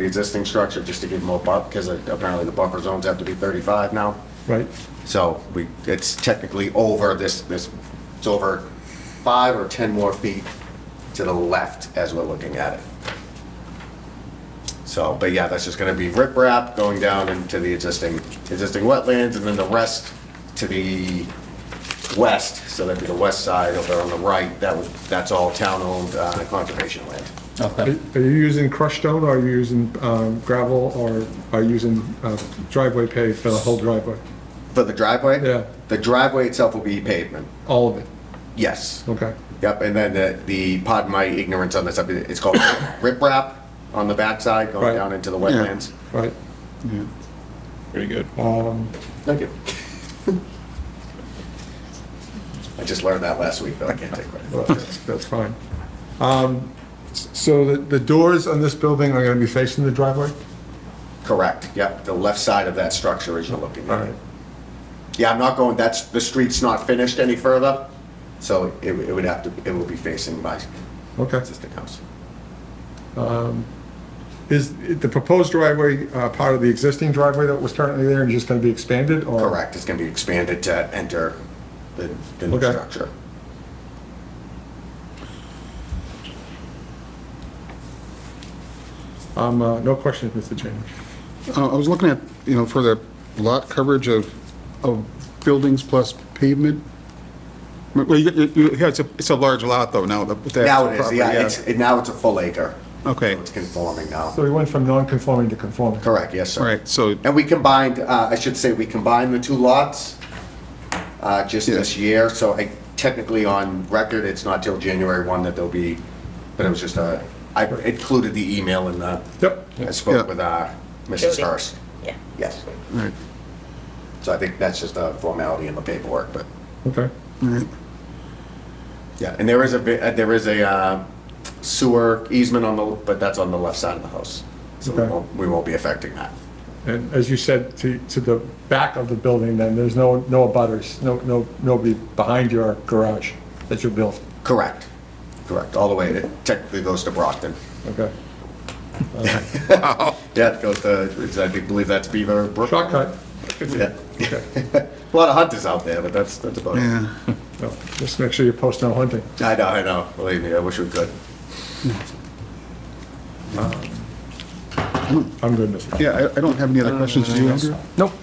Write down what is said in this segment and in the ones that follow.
the existing structure just to give more buffer, because apparently the buffer zones have to be 35 now. Right, So we, it's technically over this, this, it's over five or 10 more feet to the left as we're looking at it. So, but yeah, that's just gonna be riprap going down into the existing, existing wetlands, and then the rest to the west, so that'd be the west side over on the right, that was, that's all town-owned uh, conservation land. are Okay. are you using crushed stone, or are you using um, gravel, or are you using uh, driveway pave for the whole driveway? For the driveway? Yeah. The driveway itself will be pavement, All of it, yes. okay. Yep, and then the, the, pardon my ignorance on this, I mean, it's called riprap on the backside going Right. down into the wetlands. Right, Um, Pretty good. Thank you. I just learned that last week, but I can't take well, credit. that's that's fine. Um, s- So the the doors on this building are going to be facing the driveway? Correct, yep, the left side of that structure as you're looking All at it. right. Yeah, I'm not going, that's, the street's not finished any further, so it, it would have to, it will be facing my Okay. existing house. Is the proposed driveway uh, part of the existing driveway that was currently there and just going to be expanded, or? Correct, it's gonna be expanded to enter the, the new Okay. structure. Um, uh, No questions, Mr. Chairman. Uh, I was looking at, you know, for the lot coverage of, of buildings plus pavement. Well, you, you, yeah, it's a, it's a large lot though now. that- with that Now it is, property, yeah, it's, it- now it's a full acre. Okay. So It's conforming now. So we went from non-conforming to conforming? Correct, yes, All sir. right, so, And we combined, uh, I should say, we combined the two lots uh, just this year, so I, technically on record, it's not till January 1 that there'll be, but it was just a, I included the email in the, Yep. I Yeah. spoke with uh, Mrs. Jody. Hurst. Yeah. Yes, all right, so I think that's just a formality in the paperwork, but, Okay. all right. yeah, and there is a, vi- uh, there is a uh, sewer easement on the, but that's on the left side of the house, so we Okay. won't, we won't be affecting that. And as you said, to, to the back of the building, then, there's no, no abutters, no, no, nobody behind your garage that you built, Correct, correct, all the way, it technically goes to Brockton. okay? Yeah, it goes to, it's- I think- believe that's Beaver Brook. Shortcut. Yeah. A lot of hunters out there, but that's, that's about it. Yeah, No, Just make sure you post no hunting. I know, I know, believe me, I wish we could. I'm good, Mr. Chairman. yeah, I, I don't have any other questions. Do you, Andrew? Um,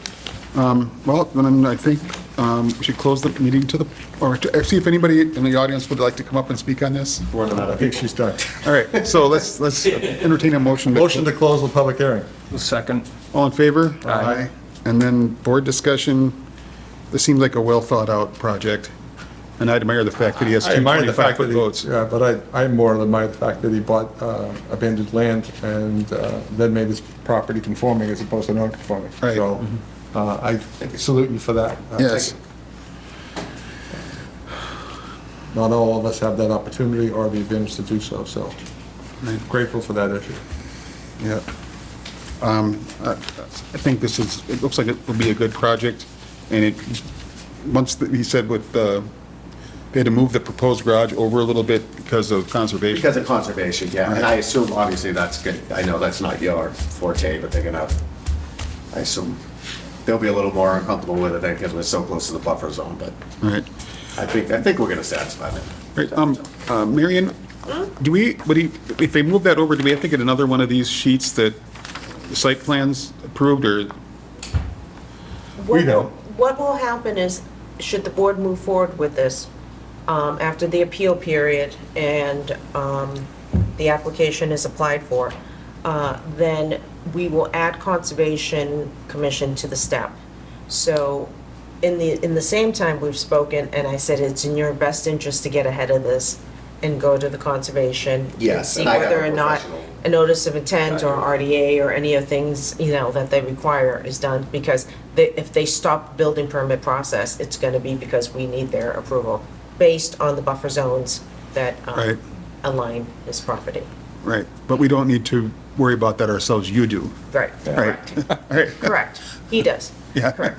Nope. Well, then I think, um, we should close the meeting to the, or to, uh, see if anybody in the audience would like to come up and speak on this. More than I that. think she's done. All right, so let's, let's entertain a motion. to- Motion to close the public hearing. Second. All in favor? Aye. And then board discussion, this seems like a well-thought-out project, and I admire the fact that he has I admire the fact that 225-foot he, votes. yeah, but I, I more admire the fact that he bought uh, abandoned land and uh, then made his property conforming as opposed to non-conforming. Right. So uh, I salute you for that. Uh, Yes. Not all of us have that opportunity or the advantage to do so, so Right. grateful for that issue. Yeah. Um, I I think this is, it looks like it will be a good project, and it, once, the- he said with, uh, they had to move the proposed garage over a little bit because of conservation. Because of conservation, yeah, and I assume, obviously, that's good, I know that's not your forte, but they're gonna, I assume, they'll be a little more uncomfortable with it, because we're so close to the buffer zone, but All right. I think, I think we're gonna satisfy them. Right, um, uh, Marion, do we, would he, if they move that over, do we have to get another one of these sheets that the site plans approved, or, We What- don't. What will happen is, should the board move forward with this, um, after the appeal period and um, the application is applied for, uh, then we will add Conservation Commission to the step. So in the, in the same time we've spoken, and I said it's in your best interest to get ahead of this and go to the Conservation. Yes, See and I got a whether or not professional a notice of intent or RDA or any of things, you know, that they require is done, because they, if they stop building permit process, it's gonna be because we need their approval, based on the buffer zones that, Right. um, align this property. right, but we don't need to worry about that ourselves, you do. Right. Right, correct, All right, correct, he does, yeah,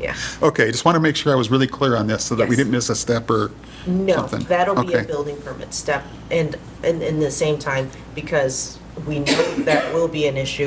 yeah. okay, just want to make sure I was really clear on this, so that we Yes. didn't miss a step or something. No, that'll be a Okay. building permit step, and, and in the same time, because we know that will be an issue,